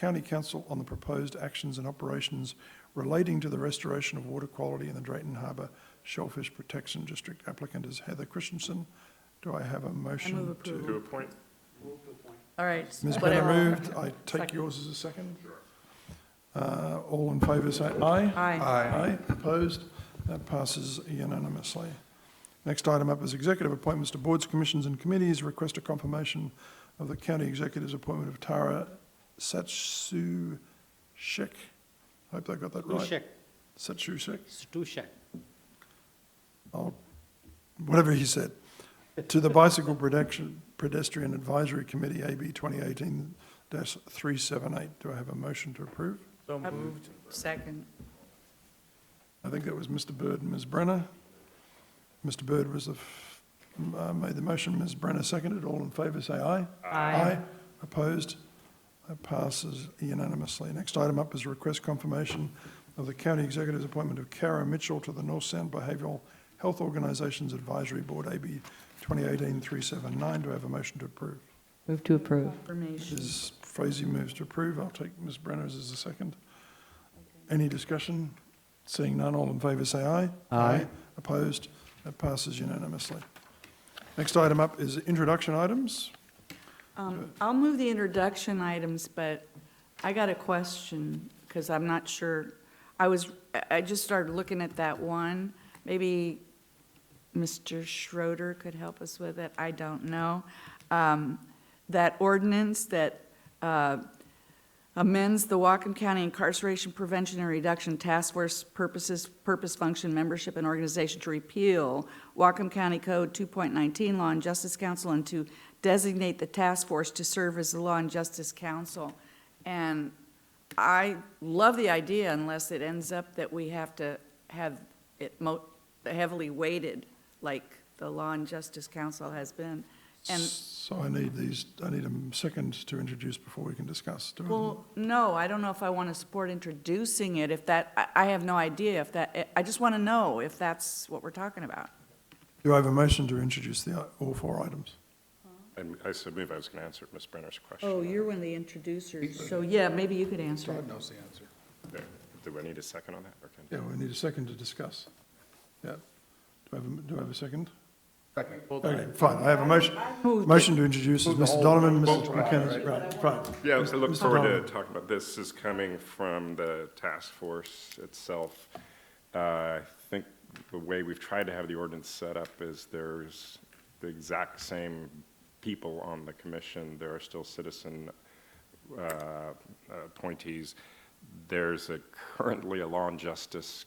county council on the proposed actions and operations relating to the restoration of water quality in the Drayton Harbour Shellfish Protection District. Applicant is Heather Christensen. Do I have a motion? move to- approval. To a point, All right. Ms. Brenner whatever. moved. I take um, Second. yours as a second. Uh, All in favour, say aye. Aye. Aye. Opposed? That passes unanimously. Next item up is executive appointments to boards, commissions, and committees. Request a confirmation of the county executive's appointment of Tara Satsu Shek. Hope I got that right. Stušek, Satsu Shek. Stušek. I'll- whatever he said, to the Bicycle Protection Pedestrian Advisory Committee, AB 2018-378. Do I have a motion to approve? so Uh, moved. Second. I think that was Mr. Bird and Ms. Brenner. Mr. Bird was the, f- m- uh, made the motion, Ms. Brenner seconded. All in favour, say aye. Opposed? That passes unanimously. Next item up is request confirmation of the county executive's appointment of Kara Mitchell to the North Sound Behavioural Health Organisations Advisory Board, AB 2018-379. Do I have a motion to approve? Move to approve. Confirmation. Ms. Frazee moves to approve. I'll take Ms. Brenner's as a second. Any discussion? Seeing none, all in favour say aye. Aye. Opposed? That passes unanimously. Next item up is introduction items. Um, I'll move the introduction items, but I got a question, because I'm not sure. I was, I- I just started looking at that one. Maybe Mr. Schroeder could help us with it, I don't know. Um, That ordinance that uh, amends the Whatcom County Incarceration Prevention and Reduction Task Force purposes, purpose, function, membership, and organization to repeal Whatcom County Code 2.19 Law and Justice Council and to designate the task force to serve as the Law and Justice Council. And I love the idea unless it ends up that we have to have it mo, heavily weighted like the Law and Justice Council has been. And So I need these, I need a second to introduce before we can discuss. Do I- Well, no, I don't know if I want to support introducing it, if that, I, I have no idea if that, eh, I just want to know if that's what we're talking about. Do I have a motion to introduce the, i- all four items? And I submit I was going to answer Ms. Brenner's question. Oh, one of the introducers. So, yeah, maybe you could answer it. knows the answer. There. Do I need a second on that? or can- Yeah, we need a second to discuss. Yeah. Do I have, a m- do I have a second? Hold on. Okay, fine, I have a motion, motion to introduce is Mr. Donovan, Mr. McKenna, right, fine. Yeah, I look Mr. forward Donovan. to talking about, this is coming from the task force itself. Uh, I think the way we've tried to have the ordinance set up is there's the exact same people on the commission, there are still citizen uh, appointees. There's a, currently a law and justice,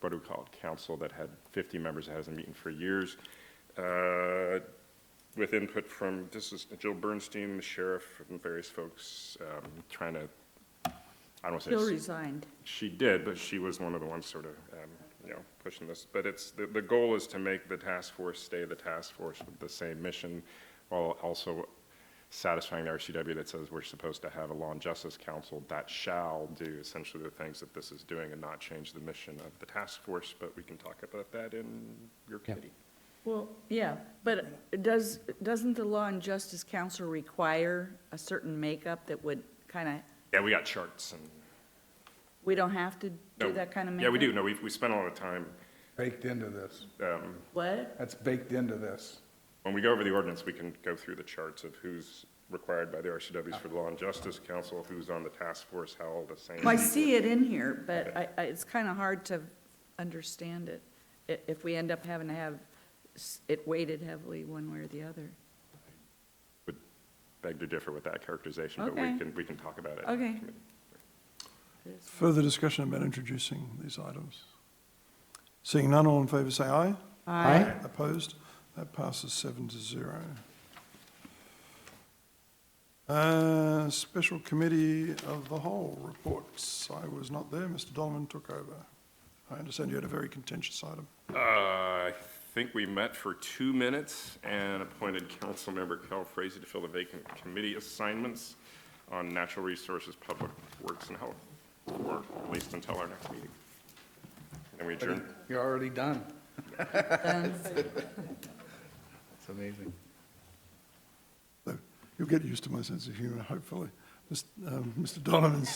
what do we call it, council that had 50 members that hasn't meeting for years. Uh, With input from, this is Jill Bernstein, the sheriff, and various folks um, trying to, I don't want to say. Bill resigned. She did, but she was one of the ones sort of, um, you know, pushing this. But it's, the, the goal is to make the task force stay the task force with the same mission, while also satisfying the RCW that says we're supposed to have a law and justice council that shall do essentially the things that this is doing and not change the mission of the task force, but we can talk about that in your committee. Well, yeah, but does, doesn't the Law and Justice Council require a certain makeup that would kind of, Yeah, we got charts and. we don't have to no, do that kind of makeup? Yeah, we do. No, we, we spent a lot of time, baked into this. um, What? That's baked into this. When we go over the ordinance, we can go through the charts of who's required by the RCWs for the Law and Justice Council, who's on the task force, how all the same. Well, I see it in here, but I, I, it's kind of hard to understand it, i- if we end up having to have s- it weighted heavily one way or the other. Would beg to differ with that characterization, but Okay. we can, we can talk about it. Okay. Further discussion about introducing these items. Seeing none, all in favour say aye. Aye. Opposed? That passes seven to zero. Uh, Special Committee of the Whole reports. I was not there, Mr. Donovan took over. I understand you had a very contentious item. Uh, I think we met for two minutes and appointed Councilmember Cal Frazee to fill the vacant committee assignments on natural resources, public works, and health, or at least until our next meeting. And we adjourn. You're already done. And It's amazing. So You'll get used to my sense of humour, hopefully. Mis- um, Mr. Donovan's